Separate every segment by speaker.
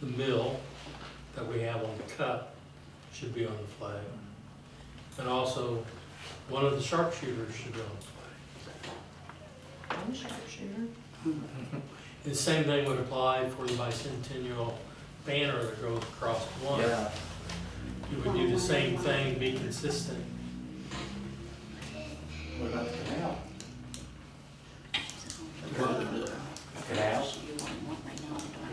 Speaker 1: the mill that we have on the cut should be on the flag. And also, one of the sharpshooters should be on the flag.
Speaker 2: I'm a sharpshooter.
Speaker 1: And the same thing would apply for the bicentennial banner that goes across one.
Speaker 3: Yeah,
Speaker 1: You would do the same thing, be consistent.
Speaker 3: what about the canal?
Speaker 2: Now?
Speaker 3: Canal?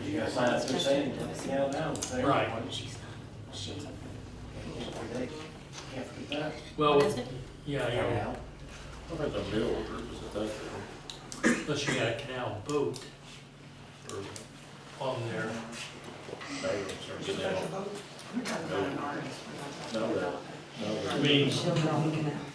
Speaker 3: You gotta sign up through saying, put the canal down. there.
Speaker 1: Right.
Speaker 2: She's not, she's.
Speaker 3: Can't forget that.
Speaker 1: Well,
Speaker 2: What is it?
Speaker 1: yeah, yeah,
Speaker 3: Canal.
Speaker 4: What about the mill, or is it that,
Speaker 1: unless you got a canal boat
Speaker 4: or
Speaker 1: on there.
Speaker 4: maybe it's or canal? No, that,
Speaker 1: I
Speaker 4: no, that-
Speaker 1: mean,
Speaker 4: the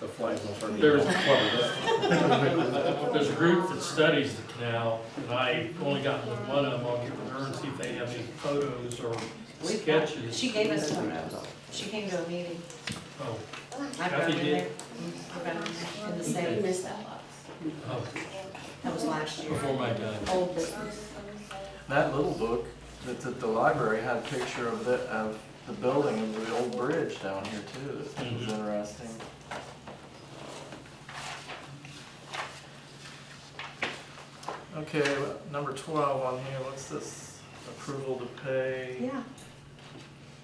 Speaker 4: flag will turn.
Speaker 1: There's-
Speaker 4: Well,
Speaker 1: There's a group that studies the canal, and I only got with one of them, I'll get with her and see if they have any photos or sketches.
Speaker 2: She gave us photos. She came to a meeting.
Speaker 1: Oh,
Speaker 2: I've got
Speaker 1: Kathy
Speaker 2: them in
Speaker 1: did?
Speaker 2: there. I've got them in the safe.
Speaker 1: oh,
Speaker 2: That was last year.
Speaker 1: before my time.
Speaker 2: Old business.
Speaker 5: That little book that's at the library had a picture of the, of the building and the old bridge down here too, that was
Speaker 1: Mhm.
Speaker 5: interesting. Okay, well, number twelve on here, what's this approval to pay?
Speaker 2: Yeah.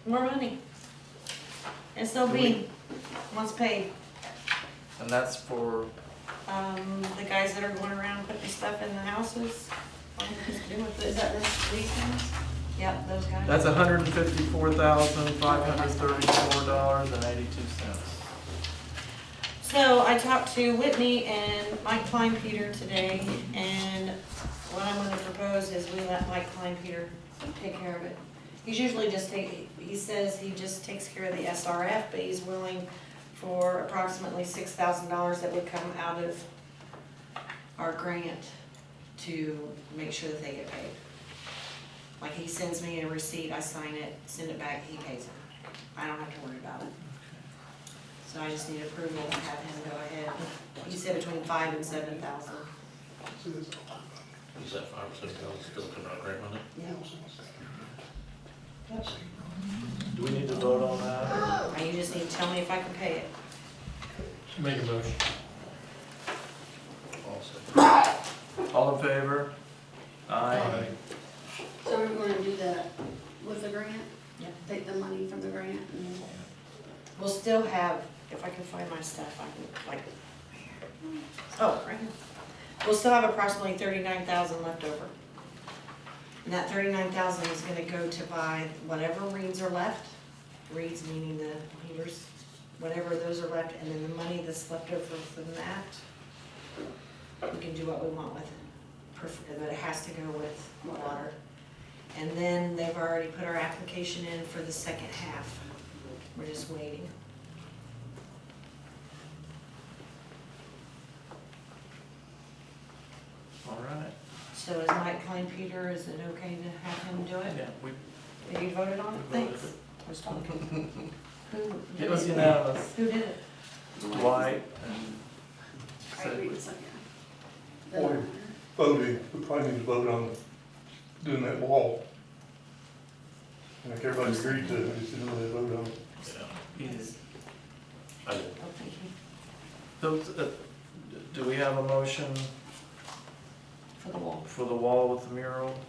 Speaker 2: More money. SLB wants paid.
Speaker 5: And that's for,
Speaker 2: Um, the guys that are going around putting stuff in the houses. What is it doing with it? Is that this weekend? Yep, those guys.
Speaker 5: that's hundred and fifty-four thousand, five hundred thirty-four dollars and eighty-two cents.
Speaker 2: So I talked to Whitney and Mike Klein Peter today, and what I'm gonna propose is we let Mike Klein Peter take care of it. He's usually just take, he says he just takes care of the SRF, but he's willing for approximately six thousand dollars that would come out of our grant to make sure that they get paid. Like he sends me a receipt, I sign it, send it back, he pays it. I don't have to worry about it. So I just need approval to have him go ahead. You said between five and seven thousand.
Speaker 4: Is that five percent that's still coming out grant money?
Speaker 5: Do we need to vote on that?
Speaker 2: Now you just need to tell me if I can pay it.
Speaker 1: Make a motion.
Speaker 4: Also.
Speaker 5: All in favor? Aye.
Speaker 6: So we're gonna do that with the grant?
Speaker 2: Yeah.
Speaker 6: Take the money from the grant and,
Speaker 2: We'll still have, if I can find my stuff, I can, like, oh, right here. We'll still have approximately thirty-nine thousand left over. And that thirty-nine thousand is gonna go to buy whatever reeds are left, reeds meaning the heaters, whatever those are left, and then the money that's left over from that, we can do what we want with it. Perf- But it has to go with water. And then they've already put our application in for the second half. We're just waiting.
Speaker 5: All right,
Speaker 2: So is Mike Klein Peter, is it okay to have him do it?
Speaker 5: yeah, we
Speaker 2: Have you voted on it?
Speaker 5: We voted
Speaker 2: Thanks. Just talking. Who?
Speaker 5: It was unanimous.
Speaker 2: Who did it?
Speaker 5: Dwight and
Speaker 6: I agree with Sonia. The-
Speaker 7: Or- voting, we probably need to vote on doing that wall. And if everybody agreed to, it, we should really vote on it.
Speaker 5: Peters.
Speaker 4: I did.
Speaker 2: Oh, thank you.
Speaker 5: Those, uh, do we have a motion
Speaker 2: For the wall.
Speaker 5: for the wall with the mural?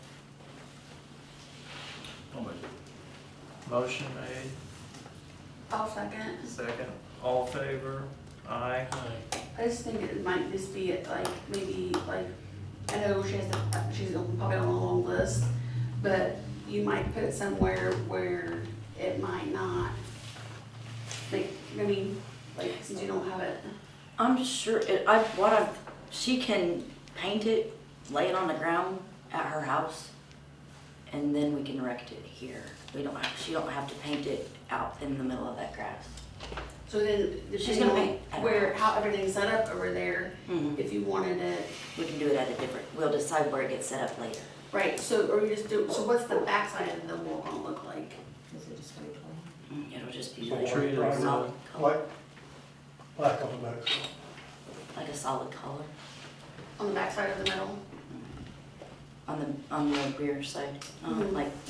Speaker 4: I'll make it.
Speaker 5: Motion made,
Speaker 6: I'll second.
Speaker 5: second, all in favor? Aye.
Speaker 1: Aye.
Speaker 6: I just think it might just be at, like, maybe, like, I know she has, a- she's on- probably on a long list, but you might put it somewhere where it might not, like, I mean, like, since you don't have it.
Speaker 8: I'm sure it, I what I she can paint it, lay it on the ground at her house, and then we can erect it here. We don't have, she don't have to paint it out in the middle of that grass.
Speaker 6: So then,
Speaker 8: She's
Speaker 6: depending
Speaker 8: gonna
Speaker 6: on
Speaker 8: make- I don't
Speaker 6: where,
Speaker 8: know.
Speaker 6: how everything's set up over there,
Speaker 8: Mhm.
Speaker 6: if you wanted it,
Speaker 8: We can do it at a different. We'll decide where it gets set up later.
Speaker 6: Right, so, or you just do, so what's the backside of the wall gonna look like?
Speaker 2: Is it just gonna be plain?
Speaker 8: Mm, It'll just be
Speaker 7: So
Speaker 8: like,
Speaker 5: Tree
Speaker 7: black-
Speaker 5: is,
Speaker 8: solid
Speaker 7: Black,
Speaker 8: color,
Speaker 7: black on the back.
Speaker 8: like a solid color
Speaker 6: On the backside of the metal?
Speaker 8: on the on the rear side, um,
Speaker 6: Mhm.
Speaker 8: like